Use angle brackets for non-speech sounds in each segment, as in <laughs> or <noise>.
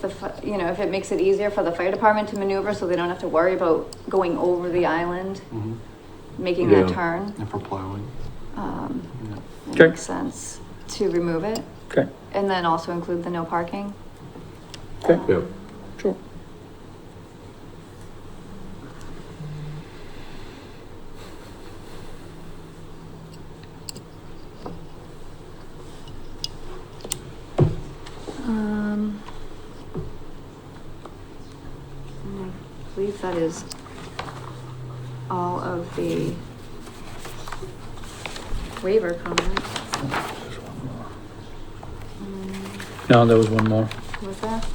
the, fi- you know, if it makes it easier for the fire department to maneuver, so they don't have to worry about going over the island, Mhm. making that Yeah. turn. And for plowing, Um, yeah. it Okay. makes sense to remove it. Okay. And then also include the no parking. Okay. Um, Yep. Sure. Um. and I believe that is all of the waiver comments. Um, No, there was one more. Was that?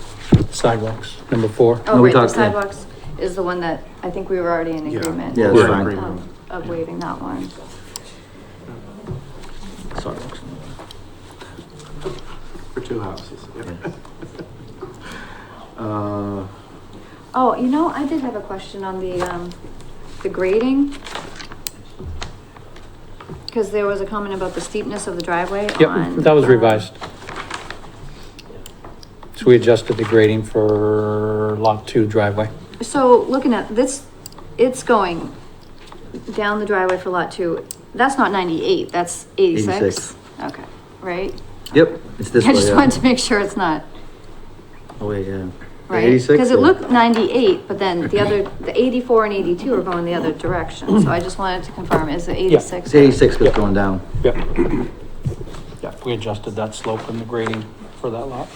Sidewalks, number four. Oh, No, right, we the talked, yeah. sidewalks is the one that I think we were already in Yeah. agreement. Yeah, that's of- fine. Of of waiving that one. sidewalks. for two houses. yeah. <laughs> Uh, Oh, you know, I did have a question on the, um, the grading. Cause there was a comment about the steepness of the driveway on. Yep, that was um, revised. So we adjusted the grading for lot two driveway. So looking at this, it's going down the driveway for lot two. That's not ninety-eight, that's eighty-six. 86. Okay, right? Yep, <laughs> it's I this way. just yeah. wanted to make sure it's not, Oh, wait, yeah. right? 86 Cause it or- looked ninety-eight, but then the <laughs> other, the eighty-four and eighty-two are going the other direction. So I just wanted to confirm, is it eighty-six? It's eighty-six was going down. Yep. Yep, we adjusted that slope and the grading for that lot.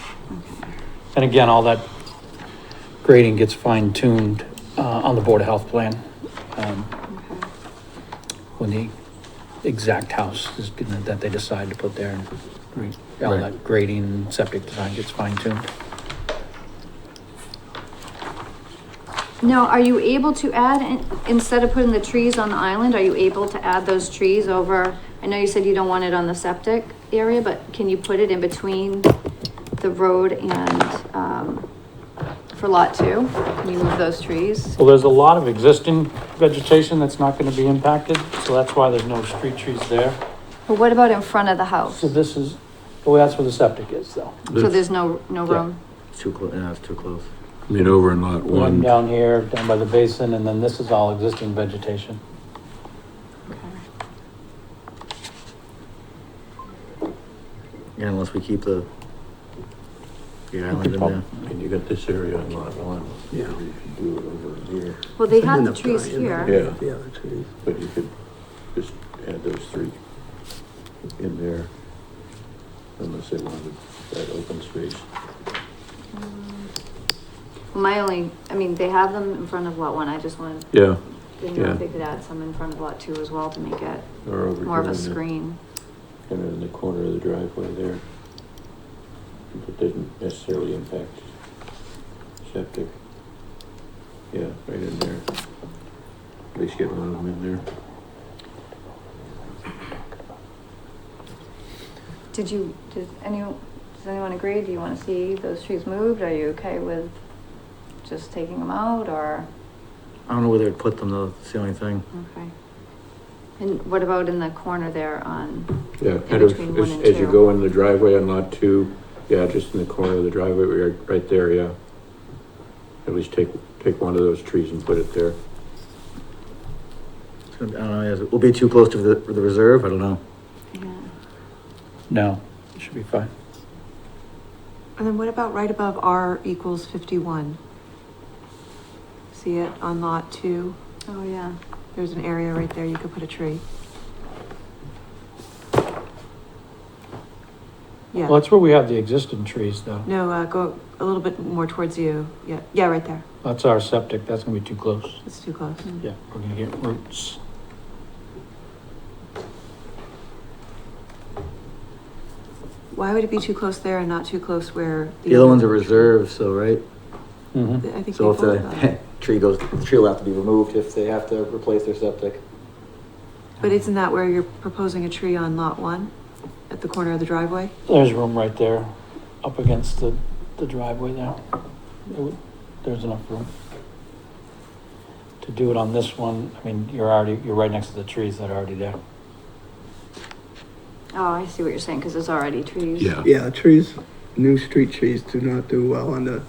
And again, all that grading gets fine tuned, uh, on the Board of Health plan. um, Okay. When the exact house is, gonna- that they decide to put there and re- all Right. that grading, septic design gets fine tuned. Now, are you able to add, in- instead of putting the trees on the island, are you able to add those trees over? I know you said you don't want it on the septic area, but can you put it in between the road and, um, for lot two? Can you move those trees? Well, there's a lot of existing vegetation that's not gonna be impacted, so that's why there's no street trees there. But what about in front of the house? So this is, well, that's where the septic is though. So there's no, no Yeah. room? It's too close, yeah, it's too close. I mean, over in lot One one, down here, down by the basin, and then this is all existing vegetation. Yeah, unless we keep the. The island in there. prob- and you got this area on lot one. Yeah. You could do it over here, Well, they have the trees here. Yeah. The other two. But you could just add those three in there, unless they wanted that open space. Um, My only, I mean, they have them in front of lot one, I just wanted, Yeah, didn't know Yeah. if they could add some in front of lot two as well to make it or over more of here a in the, screen. kind of in the corner of the driveway there. It doesn't necessarily impact septic. Yeah, right in there. At least get one of them in there. Did you, did any, does anyone agree? Do you wanna see those trees moved? Are you okay with just taking them out or? I don't know whether to put them though, it's the only thing. Okay. And what about in the corner there on, Yeah, in kind of, between one as, and as you two. go in the driveway on lot two, yeah, just in the corner of the driveway, we are right there, yeah. At least take, take one of those trees and put it there. It's gonna be- I don't know, yes, it will be too close to the, the reserve, I don't know. yeah, No, it should be fine. And then what about right above R equals fifty-one? See it on lot two? oh yeah. There's an area right there, you could put a tree. Well, Yeah, that's where we have the existing trees though. no, uh, go a little bit more towards you, yeah, yeah, right there, That's our septic, that's gonna be too close. it's too close. Mm. Yeah, we're gonna get roots. Why would it be too close there and not too close where? The other one's a reserve, so, right? Mm-hmm. I think they So if both the <laughs> are. tree goes, the tree will have to be removed if they have to replace their septic. But isn't that where you're proposing a tree on lot one? At the corner of the driveway? There's room right there, up against the, the driveway there. It would- There's enough room. To do it on this one, I mean, you're already, you're right next to the trees that are already there. Oh, I see what you're saying, cause there's already trees. Yeah, trees, new street trees do not do well on the